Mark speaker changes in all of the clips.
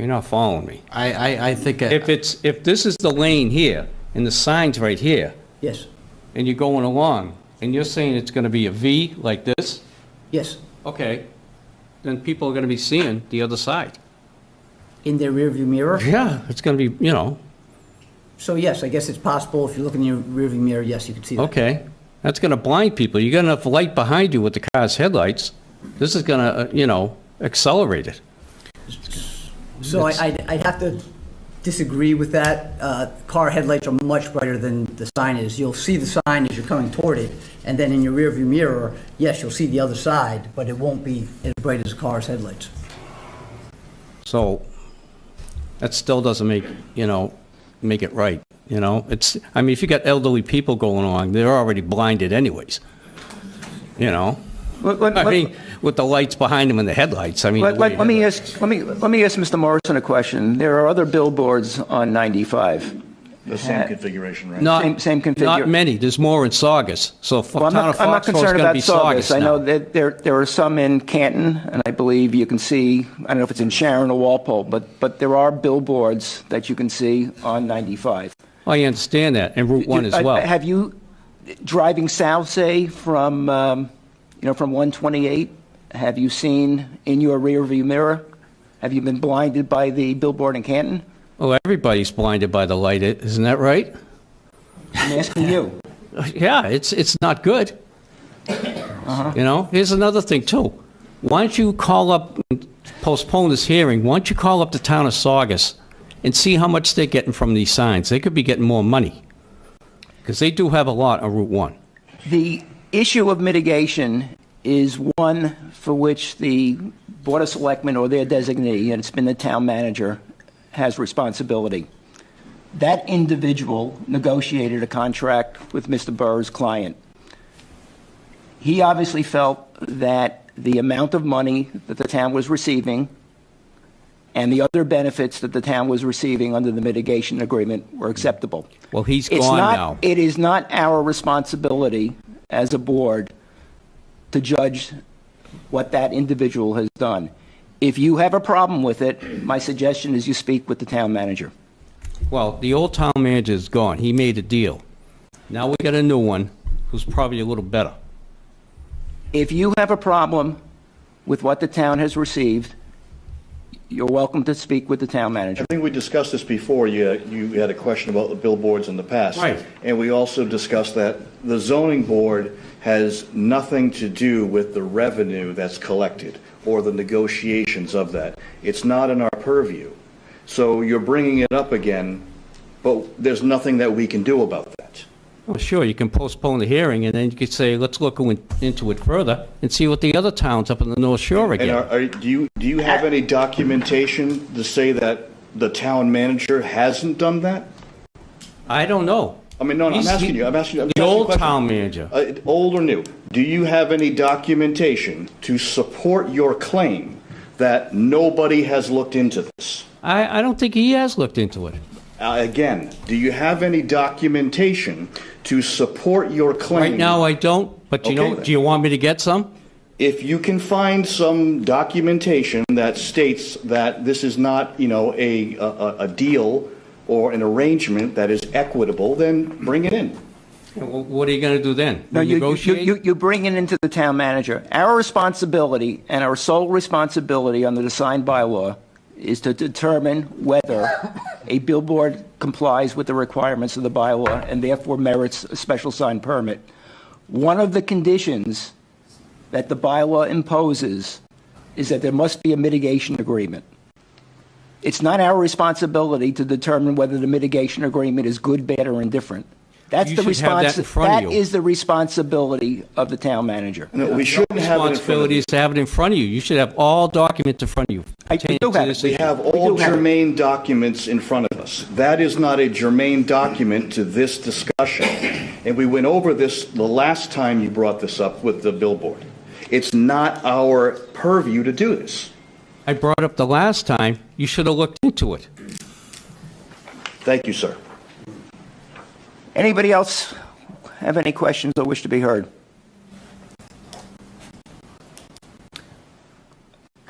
Speaker 1: You're not following me.
Speaker 2: I, I, I think, uh,
Speaker 1: If
Speaker 2: I-
Speaker 1: it's, if this is the lane here, and the sign's right here,
Speaker 3: Yes,
Speaker 1: and you're going along, and you're saying it's gonna be a V like this,
Speaker 3: yes,
Speaker 1: okay, then people are gonna be seeing the other side.
Speaker 3: in their rearview mirror.
Speaker 1: Yeah, it's gonna be, you know,
Speaker 3: So yes, I guess it's possible if you look in your rearview mirror, yes, you can see that.
Speaker 1: okay. That's gonna blind people. You got enough light behind you with the car's headlights. This is gonna, uh, you know, accelerate it.
Speaker 3: So I, I'd I'd have to disagree with that. Uh, Car headlights are much brighter than the sign is. You'll see the sign as you're coming toward it, and then in your rearview mirror, yes, you'll see the other side, but it won't be as bright as a car's headlights.
Speaker 1: So that still doesn't make, you know, make it right, you know? It's, I mean, if you got elderly people going along, they're already blinded anyways, you know?
Speaker 4: Let- let-
Speaker 1: I mean, with the lights behind them and the headlights, I mean.
Speaker 4: Let,
Speaker 1: the way
Speaker 4: let, let me
Speaker 1: the-
Speaker 4: ask, let me, let me ask Mr. Morrison a question. There are other billboards on Uh, 95.
Speaker 5: The same configuration, right?
Speaker 1: Not-
Speaker 4: same- same configure-
Speaker 1: Not many, there's more in Saugus, so
Speaker 4: Well,
Speaker 1: fo-
Speaker 4: I'm
Speaker 1: town of
Speaker 4: not, I'm not
Speaker 1: Foxborough's
Speaker 4: concerned
Speaker 1: gonna
Speaker 4: about
Speaker 1: be
Speaker 4: Saugus.
Speaker 1: Saugus
Speaker 4: I know
Speaker 1: now.
Speaker 4: that there, there are some in Canton, and I believe you can see, I don't know if it's in Sharon or Walpole, but, but there are billboards that you can see on 95.
Speaker 1: I understand that, and Route 1 as
Speaker 4: I-
Speaker 1: well.
Speaker 4: uh, Have you, driving south, say, from, um, you know, from 128, have you seen in your rearview mirror? Have you been blinded by the billboard in Canton?
Speaker 1: Well, Oh, everybody's blinded by the light, i- isn't that right?
Speaker 4: I'm asking you.
Speaker 1: Yeah, it's, it's not good.
Speaker 5: Uh-huh.
Speaker 1: You know, here's another thing too. Why don't you call up, postpone this hearing, why don't you call up the town of Saugus and see how much they're getting from these signs? They could be getting more money. Because they do have a lot on Route 1.
Speaker 4: The issue of mitigation is one for which the Board of Selectmen or their designee, and it's been the town manager, has responsibility. That individual negotiated a contract with Mr. Burr's client. He obviously felt that the amount of money that the town was receiving and the other benefits that the town was receiving under the mitigation agreement were acceptable.
Speaker 1: Well, he's
Speaker 4: It's
Speaker 1: gone
Speaker 4: not-
Speaker 1: now.
Speaker 4: It is not our responsibility as a board to judge what that individual has done. If you have a problem with it, my suggestion is you speak with the town manager.
Speaker 1: Well, the old town manager's gone. He made a deal. Now we got a new one who's probably a little better.
Speaker 4: If you have a problem with what the town has received, you're welcome to speak with the town manager.
Speaker 5: I think we discussed this before, you, you had a question about the billboards in the past.
Speaker 1: Right.
Speaker 5: And we also discussed that the zoning board has nothing to do with the revenue that's collected or the negotiations of that. It's not in our purview. So you're bringing it up again, but there's nothing that we can do about that.
Speaker 1: Well, sure, you can postpone the hearing and then you could say, let's look in- into it further and see what the other towns up in the North Shore are
Speaker 5: And
Speaker 1: getting.
Speaker 5: are, are, do you, do you have any documentation to say that the town manager hasn't done that?
Speaker 1: I don't know.
Speaker 5: I mean, no, no, I'm
Speaker 1: He's-
Speaker 5: asking you, I'm asking you. I'm
Speaker 1: The
Speaker 5: asking you a
Speaker 1: old
Speaker 5: question.
Speaker 1: town manager.
Speaker 5: Uh, Old or new, do you have any documentation to support your claim that nobody has looked into this?
Speaker 1: I, I don't think he has looked into it.
Speaker 5: Uh, Again, do you have any documentation to support your claim?
Speaker 1: Right now, I don't, but you know,
Speaker 5: Okay, then.
Speaker 1: do you want me to get some?
Speaker 5: If you can find some documentation that states that this is not, you know, a, a, a- a deal or an arrangement that is equitable, then bring it in.
Speaker 1: Wh- What are you gonna do then?
Speaker 4: No, you- you- you,
Speaker 1: Negotiate?
Speaker 4: you, you bring it into the town manager. Our responsibility and our sole responsibility under the signed bylaw is to determine whether a billboard complies with the requirements of the bylaw and therefore merits a special sign permit. One of the conditions that the bylaw imposes is that there must be a mitigation agreement. It's not our responsibility to determine whether the mitigation agreement is good, bad, or indifferent. That's
Speaker 1: You
Speaker 4: the
Speaker 1: should have that
Speaker 4: response,
Speaker 1: in front of
Speaker 4: that
Speaker 1: you.
Speaker 4: is the responsibility of the town manager.
Speaker 5: No, we shouldn't have it in front of
Speaker 1: Responsibility
Speaker 5: us.
Speaker 1: is to have it in front of you. You should have all documents in front of you.
Speaker 4: I- we
Speaker 1: pertaining
Speaker 4: do
Speaker 1: to
Speaker 4: have it.
Speaker 1: this
Speaker 4: We
Speaker 5: We
Speaker 1: issue.
Speaker 5: have all
Speaker 4: do have it.
Speaker 5: germane documents in front of us. That is not a germane document to this discussion. And we went over this the last time you brought this up with the billboard. It's not our purview to do this.
Speaker 1: I brought up the last time, you should have looked into it.
Speaker 5: Thank you, sir.
Speaker 4: Anybody else have any questions or wish to be heard?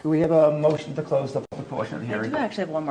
Speaker 4: Do we have a motion to close the public portion of the
Speaker 2: I
Speaker 4: hearing.
Speaker 2: do actually have one more